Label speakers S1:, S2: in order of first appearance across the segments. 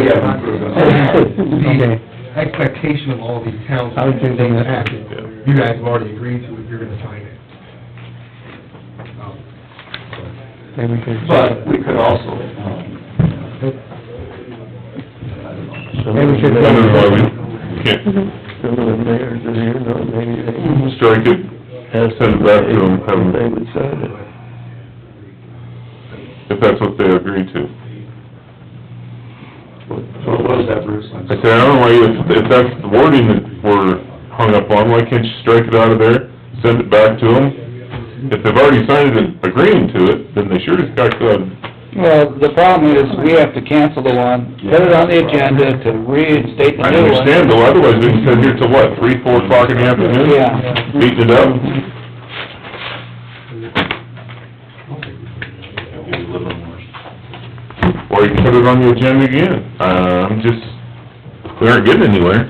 S1: yeah, we're
S2: Okay.
S1: good. The expectation of all these towns.
S2: I was thinking that.
S1: Act. You guys have already agreed to it, you're gonna sign it. Um,
S2: Maybe we could.
S3: But we could also, um, I don't know.
S2: Maybe we should.
S4: I don't know why we can't
S5: Some of the mayors in here, know maybe they
S4: strike it,
S5: have
S4: Send it back to them, have them-
S5: They would sign it.
S4: if that's what they agree to.
S3: So what was that, Bruce? I'm
S4: I
S3: sorry.
S4: said, I don't know why, if, if that's the wording that we're hung up on, why can't you strike it out of there, send it back to them? If they've already signed it agreeing to it, then they sure as heck uh, ought
S6: Well, the problem is, we have to cancel the one, put it on the agenda to reinstate the
S4: I
S6: new one.
S4: understand though, otherwise we can sit here till what, three, four o'clock in the afternoon?
S6: Yeah.
S4: Beating it up? Or you can put it on the agenda again. Uh, I'm just, we aren't getting anywhere.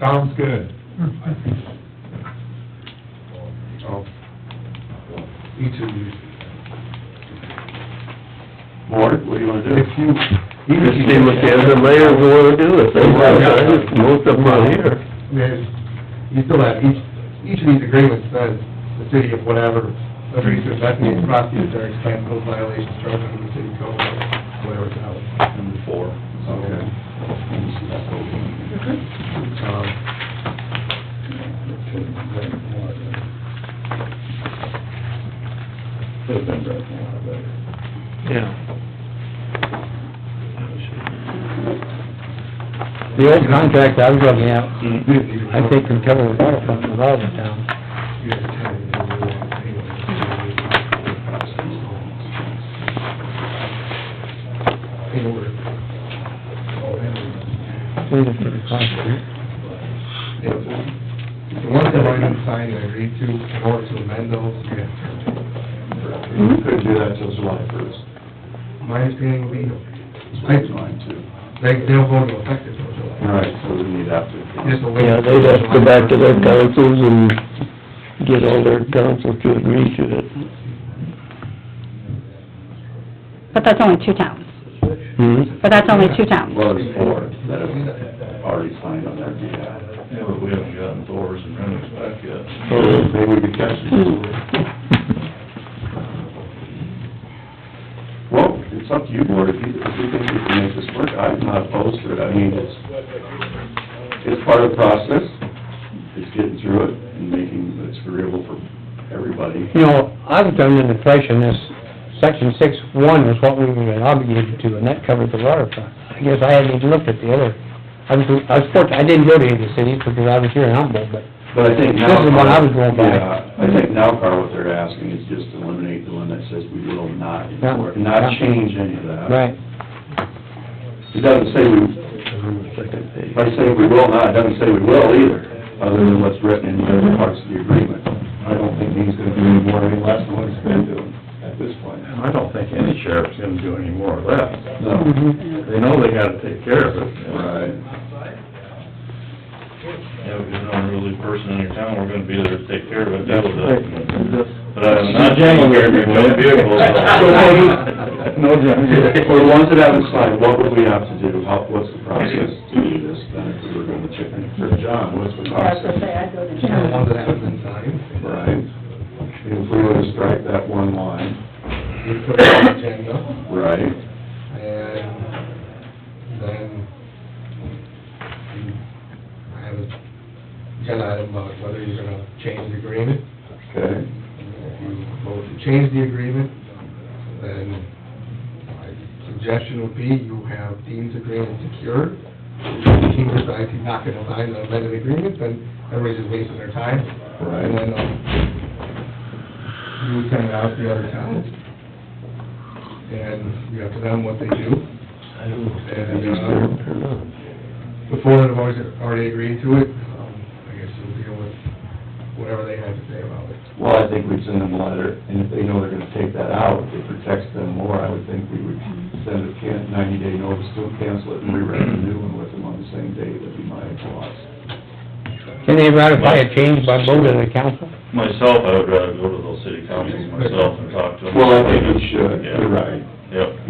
S1: Sounds good. Oh. Each of you,
S3: Mort, what do you wanna do?
S1: if you,
S5: Just
S1: even if you.
S5: see what the other mayors wanna do, if they wanna sign it, most of them are here.
S1: There's, you still have, each, each of these agreements says the city of whatever, agrees to investigate, prosecute, or expand those violations charged under the city code, whatever it's out.
S3: Number four. Mm-hmm.
S1: Okay. Um,
S3: Could've been broken a lot better.
S2: The old contract I was looking at, I think can cover the water front in all the towns.
S1: you guys tell me what you want anyway. In order.
S2: We just need to contract.
S1: The ones that already been signed and agreed to, in order to amend those, you have to.
S3: You couldn't do that till July first.
S1: My understanding would be,
S3: That's mine too.
S1: they, they'll go into effect until July.
S3: Right, so we need after.
S1: Just a wait.
S5: Yeah, they'd have to go back to their councils and get all their councils to agree to it.
S7: But that's only two towns.
S5: Hmm?
S7: But that's only two towns.
S3: Well, there's four that have already signed on their behalf. Yeah, but we haven't gotten doors and windows back yet. Maybe we could catch them. Well, it's up to you, board, if you, if you think you can make this work, I'm not opposed to it, I mean, it's, it's part of the process, it's getting through it and making it agreeable for everybody.
S2: You know, I was under the impression this section six one was what we were obligated to, and that covered the water front. I guess I hadn't even looked at the other. I was, I was fortunate, I didn't go to any of the cities because I was here in Humboldt, but
S3: But I think
S2: This
S3: now...
S2: is the one I was going by.
S3: Yeah, I think now, Carl, what they're asking is just eliminate the one that says we will not enforce,
S2: Yeah.
S3: not change any of that.
S2: Right.
S3: It doesn't say we, if I say we will not, it doesn't say we will either, other than what's written in the other parts of the agreement. I don't think he's gonna do any more or any less than what he's been doing at this point.
S8: I don't think any sheriff's gonna do any more of that.
S3: No.
S2: Mhm.
S8: They know they gotta take care of it.
S3: Right.
S9: Yeah, because an unruly person in your town, we're gonna be there to take care of it, deal with it.
S8: Right.
S9: But I'm not taking care of your junk vehicles.
S8: No, Jim.
S3: For the ones that haven't signed, what would we have to do? How, what's the process to do this then if we were gonna check in for John? What's the process?
S1: The ones that haven't been signed,
S3: Right. If we were to strike that one line.
S1: you put it on the agenda.
S3: Right.
S1: And then, I have a got item about whether you're gonna change the agreement. If
S3: Okay.
S1: you vote to change the agreement, then my suggestion would be you have Dean's agreement secured. If Dean decides he's not gonna sign the amended agreement, then everybody's just wasting their time. And
S3: Right.
S1: then, um, you would send it out to the other towns. And you have to them what they do.
S5: I don't know if
S1: And,
S5: they're
S1: uh,
S5: disturbed or not.
S1: the four that have always, already agreed to it, um, I guess you'll deal with whatever they have to say about it.
S3: Well, I think we'd send them a letter, and if they know they're gonna take that out, it protects them more. I would think we would send a can, ninety-day notice to cancel it and rewrite a new one with them on the same day. That'd be my thoughts.
S2: Can they ratify a change by vote of the council?
S9: Myself, I would rather go to those city councils myself and talk to them.
S3: Well, I think we should.
S9: Yeah.
S3: You're right.
S9: Yep.